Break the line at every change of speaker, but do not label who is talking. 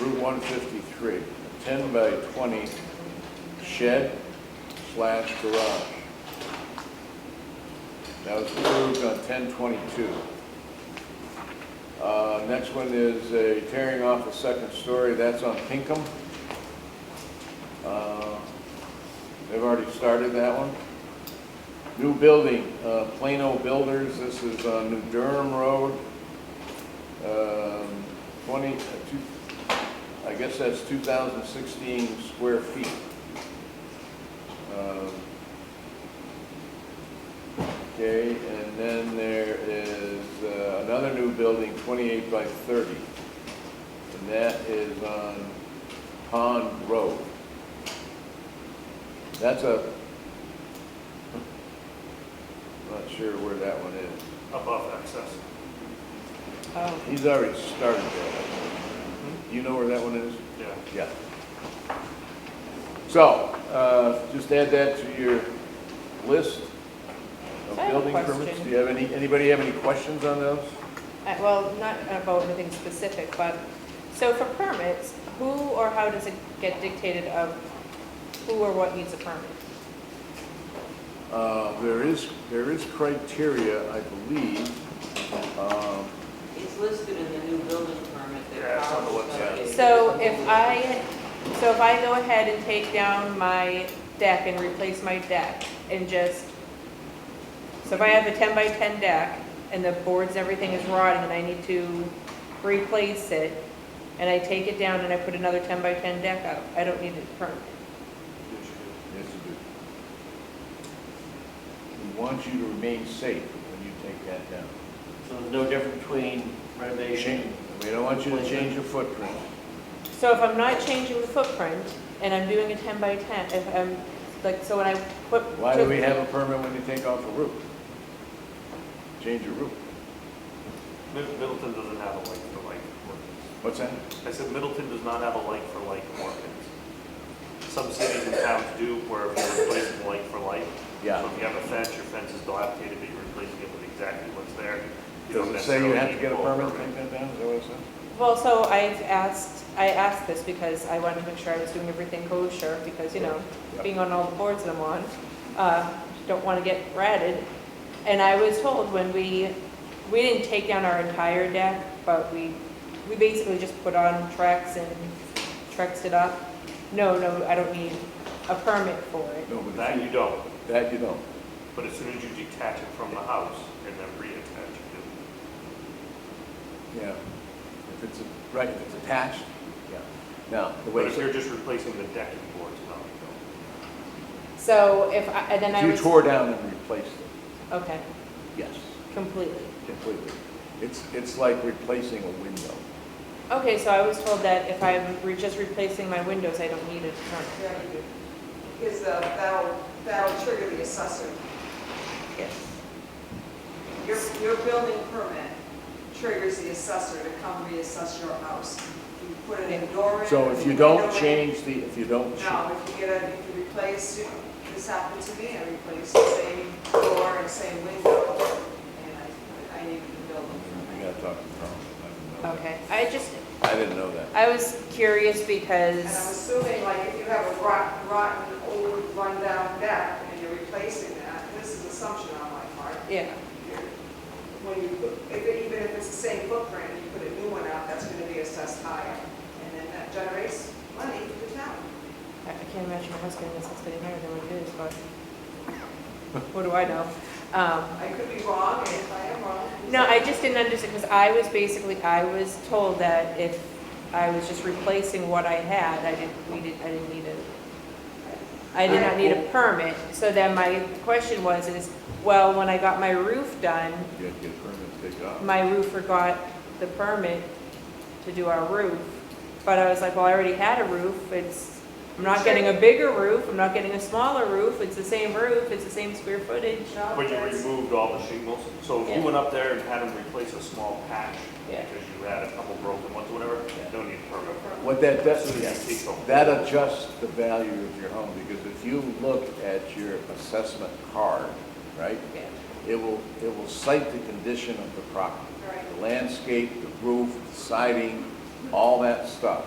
Route one fifty-three, ten by twenty shed slash garage. That was approved on ten twenty-two. Uh, next one is a tearing off a second story, that's on Pinkham. Uh, They've already started that one. New building, uh, Plano Builders, this is on New Durham Road. Um, Twenty, uh, two- I guess that's two thousand sixteen square feet. Um, Okay, and then there is uh, another new building, twenty-eight by thirty. And that is on Pond Road. That's a, not sure where that one is.
above excess.
Oh,
He's already started that. Hmm? You know where that one is?
Yeah.
Yeah. So, uh, just add that to your list of
I have a
building permits.
question.
Do you have any, anybody have any questions on those?
I- well, not about anything specific, but, so for permits, who or how does it get dictated of who or what needs a permit?
Uh, There is, there is criteria, I believe. Um,
It's listed in the new building permit that.
Yeah, it's on the
Carl's gonna
website.
get.
So if I, so if I go ahead and take down my deck and replace my deck and just, so if I have a ten by ten deck and the boards, everything is rotting and I need to replace it, and I take it down and I put another ten by ten deck up, I don't need a permit.
Yes, you do. We want you to remain safe when you take that down.
So there's no difference between renovation?
We don't want you to change your footprint.
So if I'm not changing the footprint and I'm doing a ten by ten, if I'm, like, so when I put.
Why do we have a permit when you take off a roof? Change your roof.
Mid- Middleton doesn't have a like for like ordinance.
What's that?
I said Middleton does not have a like for like ordinance. Some cities and towns do where if you're replacing like for like. So
Yeah.
if you have a fence, your fence is dilapidated, but you're replacing it with exactly what's there. you
Does
don't
it say you
necessarily
have to
need
get a
full
permit to take that down? Is that what it says?
Well, so I've asked, I asked this because I wanted to make sure I was doing everything kosher, because, you know,
Yep.
being on all the boards that I'm on, uh, don't want to get ratted. And I was told when we, we didn't take down our entire deck, but we, we basically just put on Trex and Trexed it up. No, no, I don't need a permit for it.
No, but
That you don't,
That you don't.
but as soon as you detach it from the house and then reattach it,
Yeah. If it's, right, if it's attached, yeah. Now, the
but
way,
if
if
you're just replacing the decking boards, no, you don't.
So if I, and then I
you
was.
tore down and replaced it,
Okay,
yes,
completely.
completely. It's, it's like replacing a window.
Okay, so I was told that if I'm re- just replacing my windows, I don't need a permit.
Yeah, you do. Because uh, that'll, that'll trigger the assessor.
Yes.
Your, your building permit triggers the assessor to come reassess your house. You put an indoor in.
So if you
a
don't
window in-
change the, if you don't, cha-
No, if you get a, if you replace, you- this happened to me, I replaced the same door and same window, and I, I needed a building
you
permit.
gotta talk to Tom. I didn't know that.
Okay, I just,
I didn't know that.
I was curious
And I'm
because,
assuming, like, if you have a rot- rotten, old, rundown deck, and you're replacing that, this is an assumption on my part,
yeah,
when you, put- if it- even if it's the same footprint, you put a new one out, that's gonna be assessed higher. And then that generates money for the town.
I I can't imagine my husband is getting higher than what it is, but what do I know? Um,
I could be wrong, and if I am wrong. please
No,
let me
I just didn't understand, because I was basically, I was told that if I was just replacing what I had, I didn't, we didn't, I didn't need a, I did not need a permit. So then my question was, is, well, when I got my roof done,
You have to get a permit to take it off.
my roofer got the permit to do our roof. But I was like, well, I already had a roof, it's, I'm not getting a bigger roof, I'm not getting a smaller roof, it's the same roof, it's the same square footage.
know.
But you removed all the shingles, so if you
Yeah.
went up there and had them replace a small patch,
Yeah.
because you had a couple broken ones, or whatever, no need for a permit.
What that does,
So you
yeah,
take home.
that adjusts the value of your home, because if you look at your assessment card, right?
Yeah.
It will, it will cite the condition of the property.
Right.
The landscape, the roof, the siding, all that stuff.